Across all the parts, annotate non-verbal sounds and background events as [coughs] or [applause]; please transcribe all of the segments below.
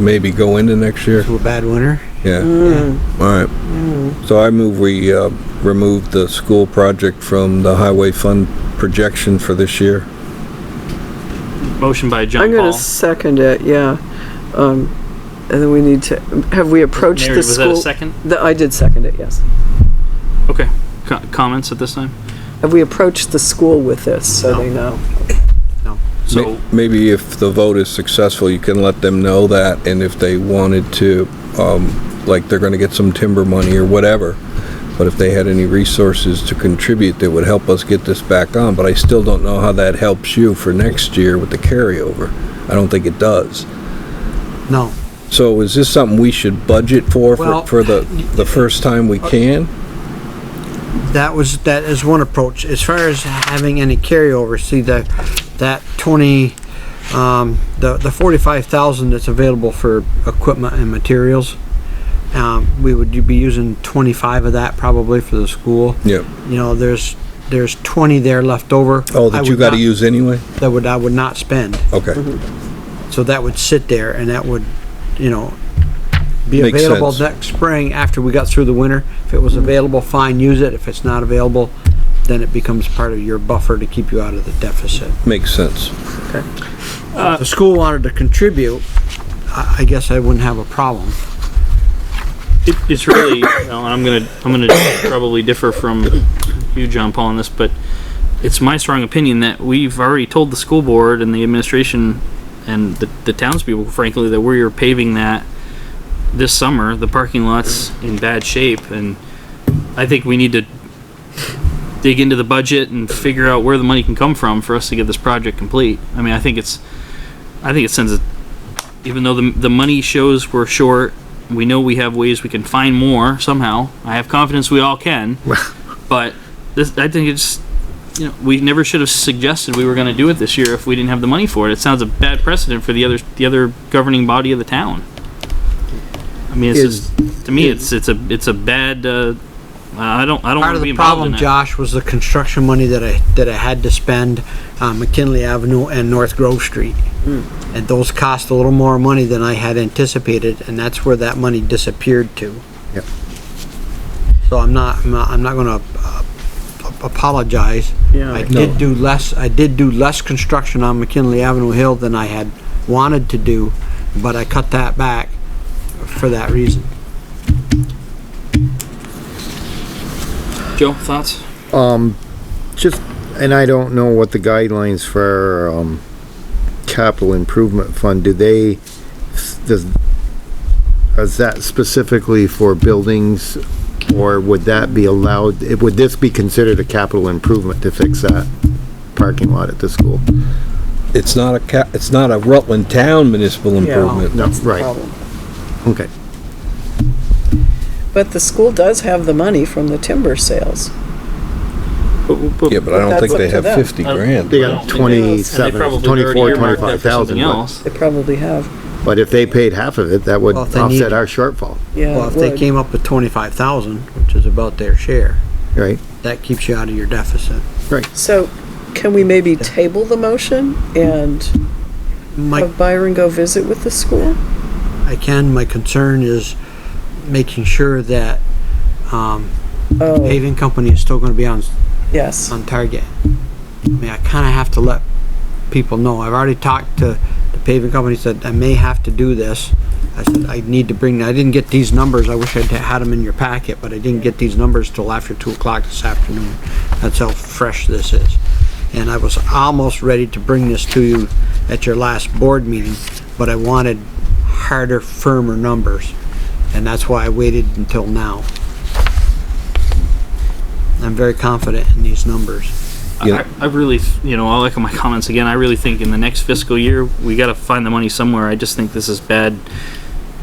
maybe go into next year? to a bad winter. Yeah. All right. So I move we uh, remove the school project from the highway fund projection for this year. Motion by John I'm gonna Paul. second it, yeah. Um, and then we need to, have we approached Mary, the was that a school? second? The- I did second it, yes. Okay. Co- Comments at this time? Have we approached the school with this, so they know? Ma- So, Maybe if the vote is successful, you can let them know that, and if they wanted to, um, like, they're gonna get some timber money or whatever, but if they had any resources to contribute that would help us get this back on, but I still don't know how that helps you for next year with the carryover. I don't think it does. No. So is this something we should budget for, Well- uh, for, for the, the first time we can? That was, that is one approach. As far as having any carryover, see that, that twenty, um, the, the forty-five thousand that's available for equipment and materials. Um, we would be using twenty-five of that probably for the school. Yeah. You know, there's, there's twenty there left over. Oh, I that you would gotta not- Mm-hmm. use anyway? That would, I would not spend. Okay, So that would sit there and that would, you know, be Makes available sense. Mm-hmm. next spring after we got through the winter. If it was available, fine, use it. If it's not available, then it becomes part of your buffer to keep you out of the deficit. makes sense. If the school wanted to contribute, I, I guess I wouldn't have a problem. it, it's really, [coughs] well, I'm gonna, I'm gonna probably differ from you, John Paul, on this, but it's my strong opinion that we've already told the school board and the administration and the, the townspeople, frankly, that we are paving that this summer. The parking lot's in bad shape, and I think we need to dig into the budget and figure out where the money can come from for us to get this project complete. I mean, I think it's, I think it sends a, even though the, the money shows we're short, we know we have ways we can find more somehow. I have confidence we all can. But this, I think it's, you know, we never should have suggested we were going to do it this year if we didn't have the money for it. It sounds a bad precedent for the other, the other governing body of the town. I mean, it's Is- just, to me, it's, it's a, it's a bad, uh, I don't, I don't Part want of to be the involved in problem, that. Josh, was the construction money that I, that I had to spend on McKinley Avenue and North Grove Street. And those cost a little more money than I had anticipated, and that's where that money disappeared to. Yep. So I'm not, I'm not, I'm not gonna uh, ap- apologize. Yeah. I did do less, I did do less construction on McKinley Avenue Hill than I had wanted to do, but I cut that back for that reason. Joe, thoughts? Just, and I don't know what the guidelines for, um, capital improvement fund, do they, does, is that specifically for buildings? Or would that be allowed, it- would this be considered a capital improvement to fix that parking lot at the school? It's not a ca, it's not a Rutland Town municipal improvement. No, right, Problem. okay. But the school does have the money from the timber sales. Yeah, but I don't That's think up they to have them. fifty grand. They I don't think they- got And they twenty-seven, probably twenty-four, already earmarked that twenty-five for something thousand, but, else. They probably have, but if they paid half of it, that would Well, if they need- offset our shortfall, yeah. Well, if it they would. came up with twenty-five thousand, which is about their share, right? that keeps you out of your deficit. So can we maybe table the motion and My, have Byron go visit with the school? I can, my concern is making sure that, um, the Oh, paving company is still gonna be on, yes. Um, on target. I mean, I kinda have to let people know. I've already talked to the paving company, said I may have to do this. I said, I need to bring, I didn't get these numbers. I wish I'd had them in your packet, but I didn't get these numbers till after two o'clock this afternoon. That's how fresh this is. And I was almost ready to bring this to you at your last board meeting, but I wanted harder, firmer numbers. And that's why I waited until now. I'm very confident in these numbers. Yeah. I, I really, th- you know, I'll echo my comments again. I really think in the next fiscal year, we got to find the money somewhere. I just think this is bad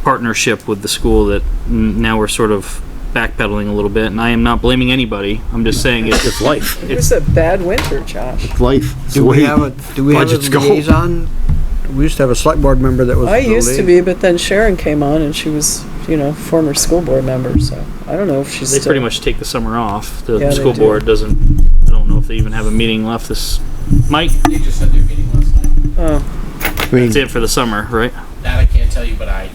partnership with the school that n- now we're sort of backpedaling a little bit. And I am not blaming anybody. I'm just saying it's It's life, It was a bad winter, Josh. it's life. It's the Do we way- have a, do we have a budgets go. liaison? We used to have a select board member that was. I the used to lia- be, but then Sharon came on and she was, you know, former school board member, so I don't know if she's they still. pretty much take the summer off. The Yeah, they school do. board doesn't. I don't know if they even have a meeting left. This Mike, They just had their meeting last night. Oh, I mean, that's it for the summer, right? That I can't tell you, but I